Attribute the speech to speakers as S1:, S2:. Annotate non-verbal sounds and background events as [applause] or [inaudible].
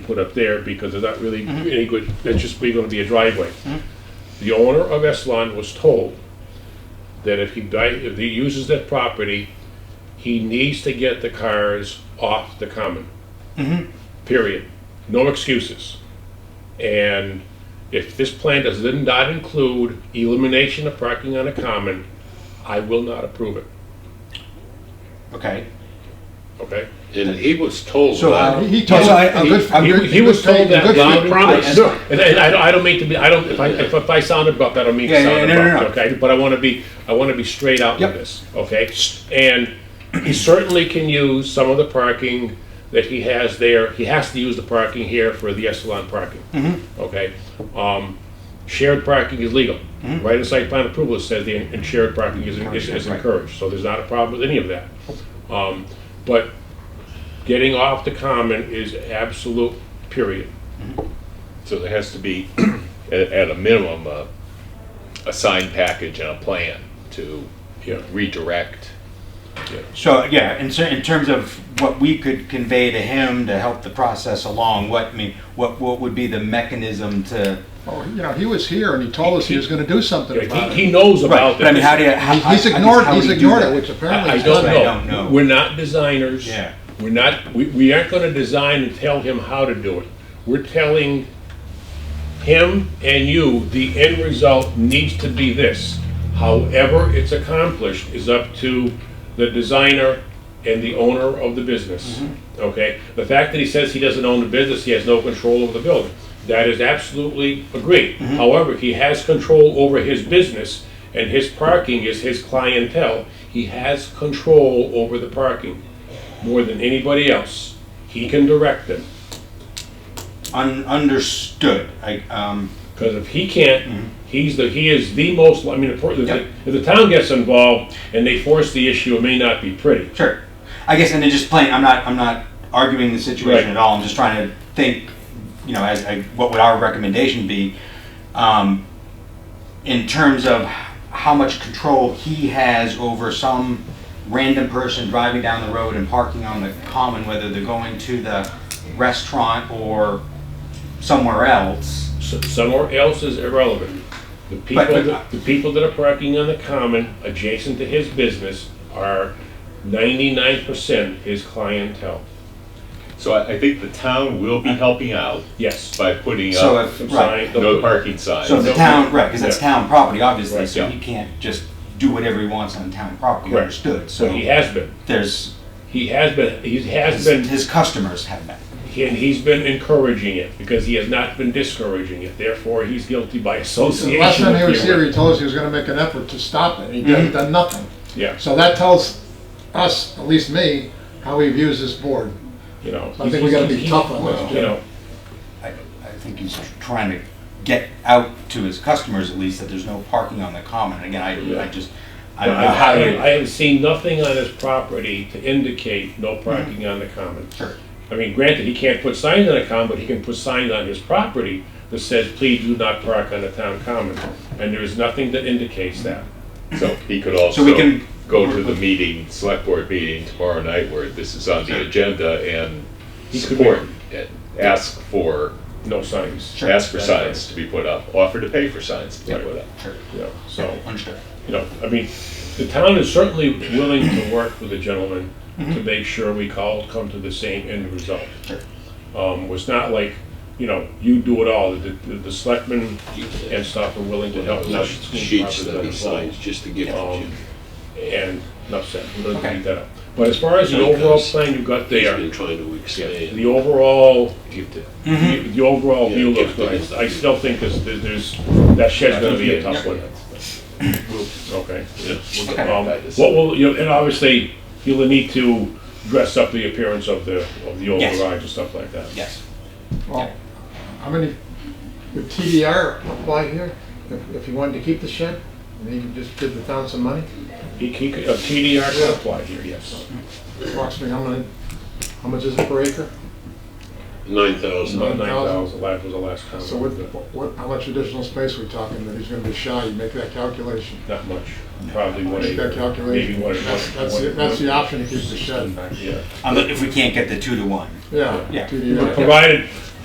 S1: put up there because there's not really any good, that's just really gonna be a driveway. The owner of Eslon was told that if he di if he uses that property, he needs to get the cars off the common. Period. No excuses. And if this plan does not include elimination of parking on a common, I will not approve it,
S2: Okay.
S1: okay?
S3: And he was told
S4: So uh,
S3: that,
S4: he told,
S2: I-
S4: I'm good, I'm
S1: He,
S4: good.
S1: he
S4: in
S1: was
S4: good faith,
S1: told
S4: in
S1: that
S4: good
S1: loud
S4: faith.
S1: promise.
S2: I-
S1: And, and I, don't- I don't mean to be, I don't, if I, if if I sound abrupt, I don't mean to
S2: Yeah, yeah,
S1: sound
S2: no, no,
S1: abrupt, okay? But I wanna be, I wanna be straight out with
S4: Yep.
S1: this, okay? And he certainly can use some of the parking that he has there. He has to use the parking here for the Essalon parking, okay? Um, shared parking is legal. Right in site plan approval, it says the, and shared parking is, is- is
S2: Mm-hmm. Right.
S1: encouraged, so there's not a problem with any of that. Um, but getting off the common is absolute, period.
S3: so there has to be, [clears throat] at, at a minimum, a, a signed package and a plan to
S1: Yeah.
S3: redirect.
S2: So, yeah, in, cer- in terms of what we could convey to him to help the process along, what, I mean, what, what would be the mechanism to?
S4: Oh, You know, he was here and he told us he was gonna do something
S1: He,
S4: about it.
S1: he knows about
S2: But I mean,
S1: this.
S2: how do you? how- I- I
S4: He's
S2: guess
S4: ignored,
S2: how
S4: he's
S2: would you do
S4: ignored it,
S2: that?
S4: which apparently
S1: I
S4: is
S1: don't
S2: doesn't-
S4: not.
S2: I don't know.
S1: know. We're not designers.
S2: Yeah.
S1: We're not, we, we aren't gonna design and tell him how to do it. We're telling him and you, the end result needs to be this. However it's accomplished is up to the designer and the owner of the business. Okay? The fact that he says he doesn't own the business, he has no control over the building. That is absolutely agreed. However, he has control over his business and his parking is his clientele. He has control over the parking more than anybody else. He can direct them.
S2: Un- understood. I, um,
S1: Because if he can't, he's the, he is the most, I mean, if the-
S2: Yep.
S1: if the town gets involved and they force the issue, it may not be pretty.
S2: sure. I guess, and then just plain, I'm not, I'm not arguing the situation
S1: Right.
S2: at all. I'm just trying to think, you know, as, I, what would our recommendation be? Um, in terms of how much control he has over some random person driving down the road and parking on the common, whether they're going to the restaurant or somewhere else.
S1: S- Somewhere else is irrelevant. The people,
S2: But- but-
S1: that- the people that are parking on the common adjacent to his business are ninety-nine percent his clientele.
S3: So I, I think the town will be helping out
S1: Yes.
S3: by putting
S2: So
S3: up
S2: if-
S1: Some
S2: right.
S1: sign-
S3: no parking signs.
S2: So if the
S1: No,
S2: town,
S1: no.
S2: right, because that's
S1: Yeah.
S2: town property, obviously,
S1: Right,
S2: so
S3: yeah.
S2: he can't just do whatever he wants on town property,
S1: Correct.
S2: understood,
S1: So he
S2: so
S1: has been,
S2: there's,
S1: he has been, he has
S2: his
S1: been
S2: his customers have that.
S1: And he's been encouraging it because he has not been discouraging it. Therefore, he's guilty by association.
S4: Last time he
S1: with
S4: was
S1: the-
S4: here, he told us he was gonna make an effort to stop it. He done done nothing.
S1: Yeah,
S4: So that tells us, at least me, how he views this board.
S1: you know.
S4: I think we gotta be tough on this,
S1: You
S4: Jim.
S1: know,
S2: I, I think he's tr- trying to get out to his customers at least that there's no parking on the common, and again, I, I just, I don't know how
S1: I
S2: to.
S1: I have seen nothing on his property to indicate no parking on the common.
S2: Sure.
S1: I mean, granted, he can't put signs on the common, but he can put signs on his property that says, please do not park on the town common. And there is nothing that indicates that.
S3: So he could also
S2: So we can-
S3: go to the meeting, select board meeting tomorrow night where this is on the agenda and
S1: He could
S3: support, and ask for,
S1: No signs,
S2: Sure.
S3: ask for signs to be put up, offer to pay for signs to be put up.
S2: Sure,
S1: you know, so.
S2: Understood.
S1: you know, I mean, the town is certainly willing to work with the gentleman
S4: Mm-hmm.
S1: to make sure we all come to the same end result.
S2: Sure.
S1: Um, was not like, you know, you do it all, the, the, the selectmen and stuff are willing to help.
S5: enough
S1: us.
S5: sheets that he signs just to give it to you.
S1: Um, And, enough said, we're gonna
S2: Okay.
S1: beat that up. But as far as the overall plan you've got
S5: He's
S1: there,
S5: been trying to
S1: the
S5: expand.
S1: overall,
S5: Give the-
S1: the the overall
S5: Yeah,
S1: view
S5: yeah,
S1: looks good.
S5: yeah.
S1: I still think there's, there's, that shed's gonna be a tough one. Okay.
S5: yeah, we'll get
S2: Okay.
S1: Um,
S5: back to
S1: What will, you know, and obviously, you'll need to dress up the appearance of the, of the old
S2: Yes.
S1: garage and stuff like that.
S2: Yes.
S4: Well, how many, would TDR apply here? If, if he wanted to keep the shed, and he could just give the town some money?
S1: He, he, uh, could- a TDR could apply here, yes.
S4: Approximately, how many, how much is it per acre?
S5: Nine thousand.
S1: About nine thousand, that was the last comment.
S4: So what,
S1: but
S4: what, how much additional space are we talking that he's gonna be shy? You make that calculation.
S1: Not much, probably one
S4: Make that
S1: acre, maybe
S4: calculation.
S1: one.
S4: That's,
S1: one-
S4: that's, the-
S1: one-
S4: that's the option to keep the shed.
S1: Yeah,
S2: Um, if we can't get the two to one.
S4: Yeah.
S2: Yeah.
S4: TDR.
S1: provided,